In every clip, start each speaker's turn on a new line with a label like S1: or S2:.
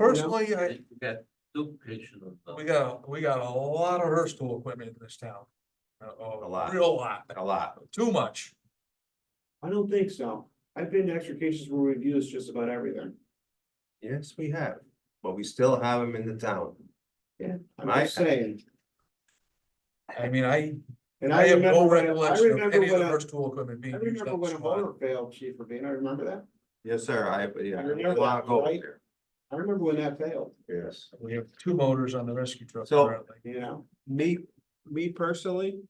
S1: Personally, I,
S2: We got duplication of. the-
S1: we got, we got a lot of Hurstville equipment in this town. A-
S3: A
S1: A
S3: lot.
S1: real lot,
S3: a lot.
S1: too much.
S4: I don't think so. I've been to extrications where we've used just about everything.
S3: Yes, we have, but we still have them in the town.
S4: I'm
S3: I-
S4: just saying,
S1: I mean, I,
S4: and
S1: I
S4: I
S1: have
S4: remember
S1: no
S4: when, I
S1: recollection of
S4: remember
S1: any of
S4: when,
S1: the
S4: a-
S1: Hurstville equipment
S4: I
S1: being used
S4: remember
S1: on the
S4: when a
S1: squad.
S4: motor failed, Chief Rabina, I remember that.
S3: Yes, sir, I, yeah.
S4: I remember that,
S3: I'll go
S4: right?
S3: there.
S4: I remember when that failed,
S3: Yes.
S1: We have two motors on the rescue truck
S3: So-
S1: currently.
S4: you know?
S3: Me, me personally,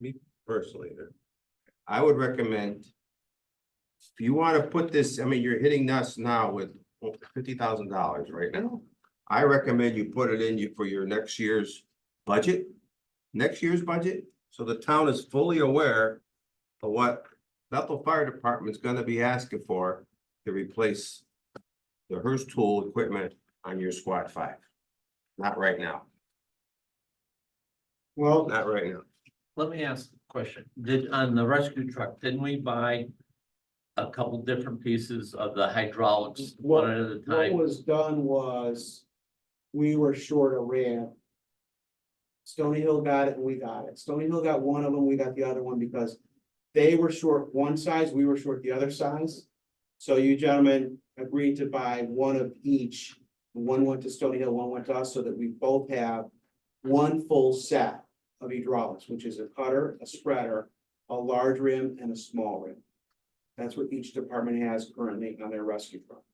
S3: me personally, I would recommend. If you wanna put this, I mean, you're hitting us now with fifty thousand dollars right now. I recommend you put it in you for your next year's budget, next year's budget, so the town is fully aware. Of what Bethel Fire Department's gonna be asking for to replace. The Hurst tool equipment on your squad five. Not right now,
S4: Well,
S3: not right now.
S2: Let me ask a question. Did, on the rescue truck, didn't we buy a couple different pieces of the hydraulics,
S4: What-
S2: one at a
S4: what
S2: time?
S4: was done was, we were short a ramp. Stony Hill got it and we got it. Stony Hill got one of them, we got the other one because they were short one size, we were short the other size. So you gentlemen agreed to buy one of each. One went to Stony Hill, one went to us, so that we both have one full set of hydraulics, which is a cutter, a spreader, a large rim and a small rim. That's what each department has currently on their rescue truck.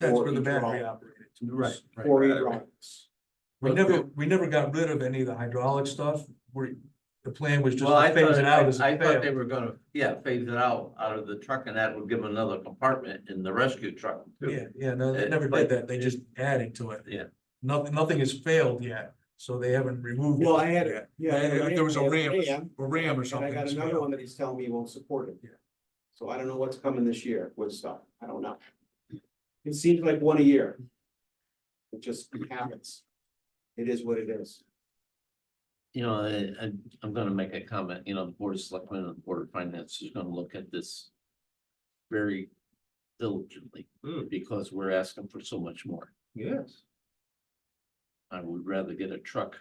S1: That's
S4: Or
S1: where the
S4: each
S1: battery
S4: roll.
S1: operated.
S2: Right, right.
S4: Four
S3: right.
S4: hydraulics.
S1: We never, we never got rid of any of the hydraulic stuff. We, the plan was just
S2: Well, I
S1: to phase
S2: thought,
S1: it out
S2: I
S1: as
S2: I
S1: it
S2: thought they
S1: failed.
S2: were gonna, yeah, phase it out, out of the truck and that would give them another compartment in the rescue truck. too.
S1: Yeah, yeah, no, they
S2: Uh,
S1: never did
S2: but-
S1: that. They just added to it.
S2: Yeah.
S1: Nothing, nothing has failed yet, so they haven't removed.
S4: Well,
S1: it
S4: I had,
S1: yet.
S4: a- yeah. I had
S1: Yeah, there was a
S4: I had
S1: ramp,
S4: ram,
S1: or ram or
S4: And I
S1: something.
S4: got
S1: that's
S4: another
S1: failed.
S4: one that he's telling me won't support it.
S1: Yeah.
S4: So I don't know what's coming this year with stuff. I don't know. It seems like one a year. It just happens. It is what it is.
S2: You know, I, I, I'm gonna make a comment, you know, the Board of Selectmen and the Board of Finance is gonna look at this very diligently,
S3: Hmm.
S2: because we're asking for so much more.
S3: Yes.
S2: I would rather get a truck.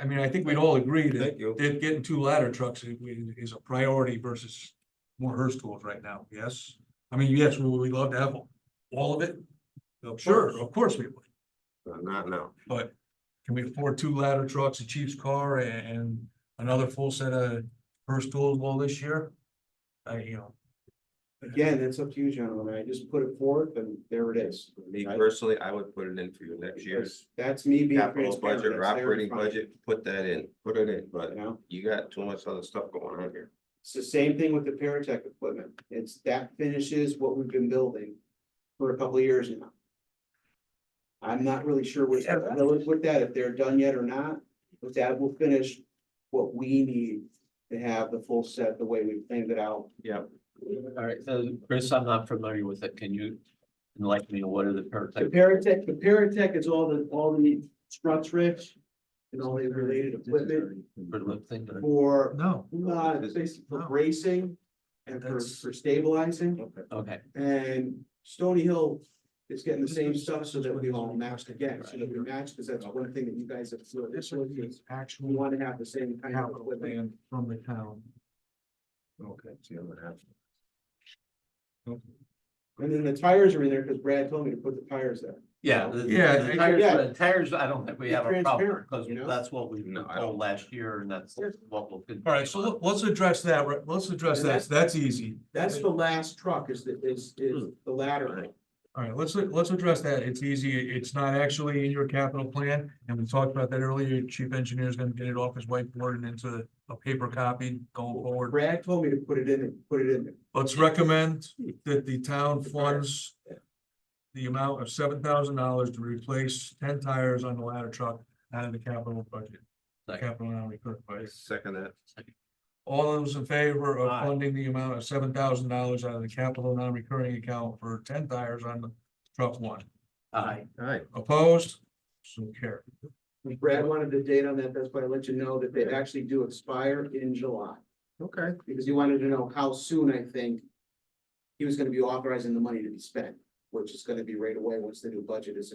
S1: I mean, I think we'd all agree that,
S3: Thank you.
S1: that getting two ladder trucks i- i- is a priority versus more Hearst tools right now, yes? I mean, yes, we would love to have all of it? Uh, Sure, of course we would,
S3: But Uh, Not now.
S1: but can we afford two ladder trucks, a chief's car a- and another full set of Hearst tools all this year? I, you know,
S4: Again, that's up to you gentlemen. I just put it forth and there it is.
S3: Me
S4: Right?
S3: personally, I would put it in for your next year's
S4: That's me being.
S3: capital
S4: transparent.
S3: budget
S4: That's
S3: or
S4: their
S3: operating
S4: responsibility,
S3: budget, put that in, put it in, but
S4: You know?
S3: you got too much other stuff going on here.
S4: It's the same thing with the Paratech equipment. It's that finishes what we've been building for a couple of years now. I'm not really sure what's
S1: Yeah, that-
S4: really with that, if they're done yet or not, but that will finish what we need to have the full set the way we planned it out.
S3: Yep.
S2: All right, so Chris, I'm not familiar with it. Can you enlighten me? What are the
S4: The
S2: paratech?
S4: Paratech, the Paratech is all the, all the struts rich and all the related equipment
S2: For the thing that-
S4: for,
S1: no,
S4: uh, basically for bracing and for, for stabilizing.
S3: Okay.
S2: Okay,
S4: And Stony Hill is getting the same stuff so that we all matched again, so that we match, because that's one thing that you guys have.
S1: this is
S4: We
S1: actual
S4: want to have the same kind of
S1: capital
S4: equipment.
S1: plan from the town.
S3: Okay. see, I'm gonna have to-
S4: And then the tires are in there because Brad told me to put the tires there.
S2: yeah. the-
S1: Yeah,
S2: the
S1: I-
S2: Tires,
S4: yeah.
S2: the tires, I don't think we
S4: Be
S2: have a problem
S4: transparent,
S2: because
S4: you know?
S2: that's what we were
S3: No, I
S2: told last year and that's what we'll. continue
S1: All right, so
S2: on.
S1: let- let's address that, right, let's address that, that's easy.
S4: That's the last truck is the, is, is the ladder.
S1: All Hmm. right, let's, let's address that. It's easy. It's not actually in your capital plan, and we talked about that earlier. Chief engineer is gonna get it off his whiteboard and into a paper copy going forward.
S4: Brad told me to put it in, there, put it in there.
S1: Let's recommend that the town funds the amount of seven thousand dollars to replace ten tires on the ladder truck out of the capital budget.
S2: Second.
S1: Capital non-recurring
S3: I
S1: budget.
S3: Second that.
S1: All those in favor of
S2: Aye.
S1: funding the amount of seven thousand dollars out of the capital non-recurring account for ten tires on the truck one.
S2: Aye.
S3: Alright,
S1: Opposed? So carried.
S4: Brad wanted the date on that, that's why I let you know that they actually do expire in July,
S3: okay.
S4: because he wanted to know how soon, I think, he was gonna be authorizing the money to be spent. which is gonna be right away once the new budget is